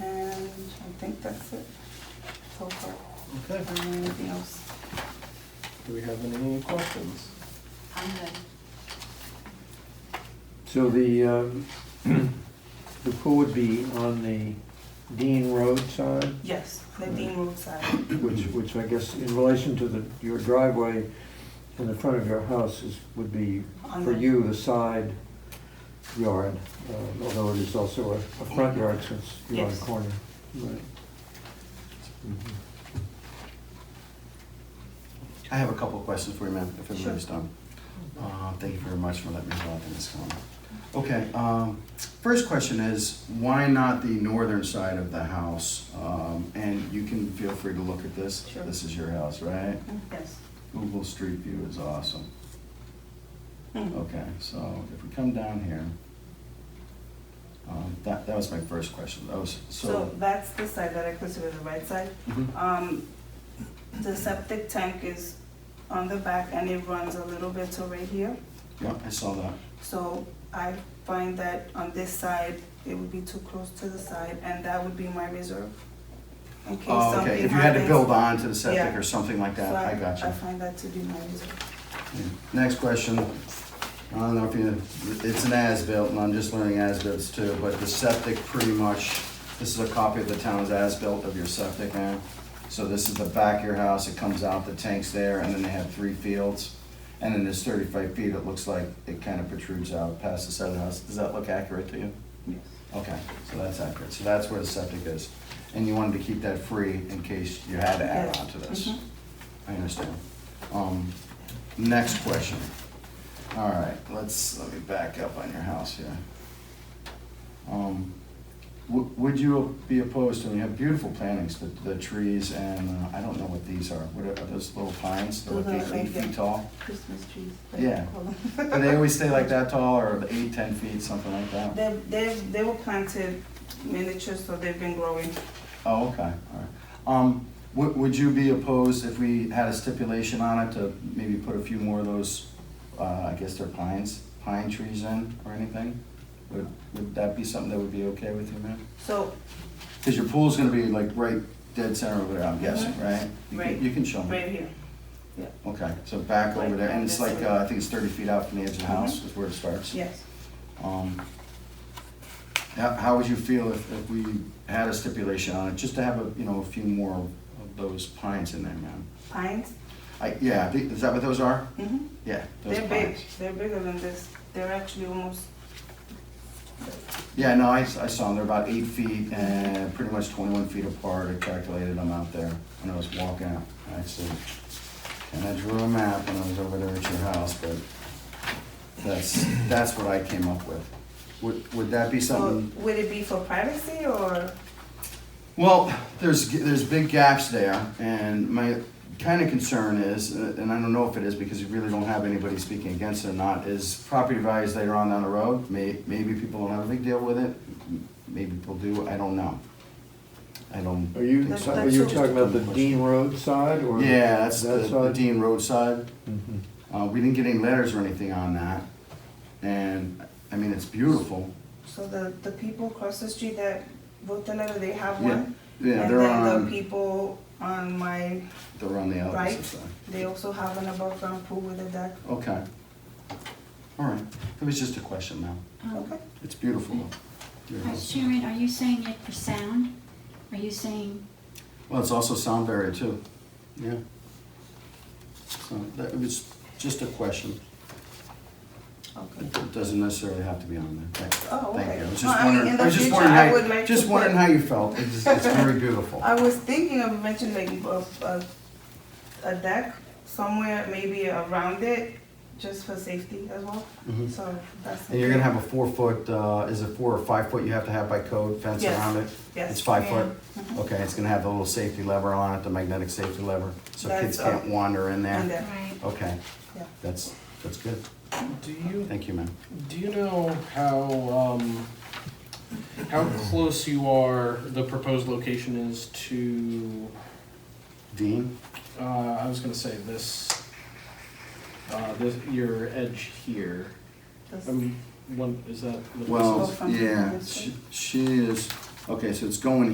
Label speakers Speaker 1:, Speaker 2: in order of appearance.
Speaker 1: think that's it so far.
Speaker 2: Okay,
Speaker 1: Is there anything else?
Speaker 2: do we have any questions?
Speaker 3: I'm good.
Speaker 4: So the, um, the pool would be on the Dean Road side,
Speaker 1: Yes, the Dean Road side.
Speaker 4: which, which I guess in relation to the, your driveway in the front of your house is, would be
Speaker 1: On
Speaker 4: for
Speaker 1: the-
Speaker 4: you the side yard, uh, although it is also a, a front yard since you're on a
Speaker 1: Yes.
Speaker 4: corner. Right.
Speaker 5: I have a couple of questions for you, ma'am, if
Speaker 1: Sure.
Speaker 5: everybody's done. Uh, Thank you very much for letting me go up in this comment. Okay, um, first question is, why not the northern side of the house? Um, And you can feel free to look at this.
Speaker 1: Sure.
Speaker 5: This is your house, right?
Speaker 1: Yes.
Speaker 5: Google Street View is awesome.
Speaker 1: Mm.
Speaker 5: Okay, so if we come down here, um, that, that was my first question. That was,
Speaker 1: So
Speaker 5: so.
Speaker 1: that's the side that I consider the right side.
Speaker 5: Mhm.
Speaker 1: Um, the septic tank is on the back and it runs a little bit to right here.
Speaker 5: Yeah, I saw that.
Speaker 1: So I find that on this side, it would be too close to the side and that would be my reserve. In case
Speaker 5: Oh,
Speaker 1: something
Speaker 5: Okay, if you had to
Speaker 1: happens.
Speaker 5: build on to the septic
Speaker 1: Yeah.
Speaker 5: or something like that,
Speaker 1: So
Speaker 5: I got you.
Speaker 1: I find that to be my reserve.
Speaker 5: Next question. I don't know if you, it's an as-built, and I'm just learning as-bills too, but the septic pretty much, this is a copy of the town's as-built of your septic, man. So this is the back of your house, it comes out, the tank's there, and then they have three fields. And then there's thirty-five feet, it looks like it kind of protrudes out past the side of the house. Does that look accurate to you? Okay, so that's accurate. So that's where the septic is. And you wanted to keep that free in case you had to add
Speaker 1: Yes.
Speaker 5: on to this.
Speaker 1: Mhm.
Speaker 5: I understand. Um, next question. All right, let's, let me back up on your house here. Um, w- would you be opposed to, and you have beautiful plantings, the, the trees and, uh, I don't know what these are. What are, are those little pines? They're like
Speaker 1: Those are
Speaker 5: eight, eight
Speaker 1: like,
Speaker 5: feet
Speaker 1: uh,
Speaker 5: tall?
Speaker 1: Christmas trees.
Speaker 5: they Yeah. call Do they always stay like that tall or eight, ten feet, something like that?
Speaker 1: They, they, they were planted miniature, so they've been growing.
Speaker 5: Oh, okay, all right. Um, would, would you be opposed if we had a stipulation on it to maybe put a few more of those, uh, I guess they're pines, pine trees in or anything? Would, would that be something that would be okay with you, ma'am?
Speaker 1: So,
Speaker 5: Cause your pool's gonna be like right dead center over there, I'm guessing, right? You can-
Speaker 1: Mm-hmm. Right.
Speaker 5: You can show me.
Speaker 1: right here.
Speaker 5: Okay, so back over there, and it's
Speaker 1: Like
Speaker 5: like,
Speaker 1: this
Speaker 5: uh,
Speaker 1: way.
Speaker 5: I think it's thirty feet out from the edge of the house
Speaker 1: Mhm.
Speaker 5: is where it starts.
Speaker 1: Yes.
Speaker 5: Um, How, how would you feel if, if we had a stipulation on it, just to have a, you know, a few more of those pines in there, man?
Speaker 1: Pines.
Speaker 5: I, yeah, I think- is that what those are?
Speaker 1: Mm-hmm.
Speaker 5: Yeah, those
Speaker 1: They're big.
Speaker 5: pines.
Speaker 1: They're bigger than this. They're actually almost,
Speaker 5: Yeah, no, I, s- I saw them, they're about eight feet and pretty much twenty-one feet apart, I calculated them out there when I was walking out, actually. And I drew a map when I was over there at your house, but that's, that's what I came up with. Would, would that be
Speaker 1: so
Speaker 5: something?
Speaker 1: would it be for privacy or?
Speaker 5: Well, there's, there's big gaps there, and my kind of concern is, uh, and I don't know if it is because you really don't have anybody speaking against it or not, is property values later on down the road, may, maybe people don't have a big deal with it, m- maybe people do, I don't know. I don't.
Speaker 4: Are you,
Speaker 5: think
Speaker 1: That's-
Speaker 5: so.
Speaker 4: are
Speaker 1: that's
Speaker 4: you
Speaker 1: just
Speaker 4: talking about the Dean Road side or?
Speaker 5: Yeah, that's the
Speaker 4: that
Speaker 5: the
Speaker 4: side?
Speaker 5: Dean Road side.
Speaker 4: Mhm.
Speaker 5: Uh, we didn't get any letters or anything on that, and, I mean, it's beautiful.
Speaker 1: So the, the people across the street that wrote the letter, they have
Speaker 5: Yeah,
Speaker 1: one.
Speaker 5: Yeah,
Speaker 1: And
Speaker 5: they're
Speaker 1: then the
Speaker 5: on,
Speaker 1: people on my,
Speaker 5: they're on the opposite
Speaker 1: right.
Speaker 5: side.
Speaker 1: they also have an above ground pool with a deck.
Speaker 5: Okay. All right, it was just a question, ma'am.
Speaker 1: Okay.
Speaker 3: Um,
Speaker 5: It's beautiful. though. Your
Speaker 3: Vice
Speaker 5: house.
Speaker 3: Chairman, are you saying it for sound? Are you saying,
Speaker 5: Well, it's also sound barrier too. Yeah. So that was just a question.
Speaker 1: Okay.
Speaker 5: It doesn't necessarily have to be on there. Thank-
Speaker 1: Oh,
Speaker 5: Thank
Speaker 1: okay.
Speaker 5: you. I was
Speaker 1: No, I
Speaker 5: just
Speaker 1: mean,
Speaker 5: wondering,
Speaker 1: in the
Speaker 5: I was just
Speaker 1: future,
Speaker 5: wondering
Speaker 1: I
Speaker 5: how,
Speaker 1: would like
Speaker 5: you-
Speaker 1: to
Speaker 5: just
Speaker 1: put-
Speaker 5: wondering how you felt. It's, it's very beautiful.
Speaker 1: I was thinking of mentioning a, a, a deck somewhere, maybe around it, just for safety as well.
Speaker 5: Mhm.
Speaker 1: So that's.
Speaker 5: And you're gonna have a four foot, uh, is it four or five foot you have to have by code fence
Speaker 1: Yes.
Speaker 5: around it?
Speaker 1: Yes,
Speaker 5: It's five
Speaker 1: I
Speaker 5: foot?
Speaker 1: am. Mhm.
Speaker 5: Okay, it's gonna have the little safety lever on it, the magnetic safety lever, so
Speaker 1: That's
Speaker 5: kids can't
Speaker 1: up.
Speaker 5: wander
Speaker 1: And
Speaker 5: in there.
Speaker 1: then,
Speaker 3: right,
Speaker 5: Okay,
Speaker 1: yeah.
Speaker 5: that's, that's good.
Speaker 2: Do you,
Speaker 5: Thank you, ma'am.
Speaker 2: do you know how, um, how close you are, the proposed location is to,
Speaker 5: Dean?
Speaker 2: uh, I was gonna say this, uh, this, your edge here.
Speaker 1: that's-
Speaker 2: Um, one, is that? what this is?
Speaker 5: Well,
Speaker 1: from
Speaker 5: yeah,
Speaker 1: this
Speaker 5: she
Speaker 1: way?
Speaker 5: she is, okay, so it's going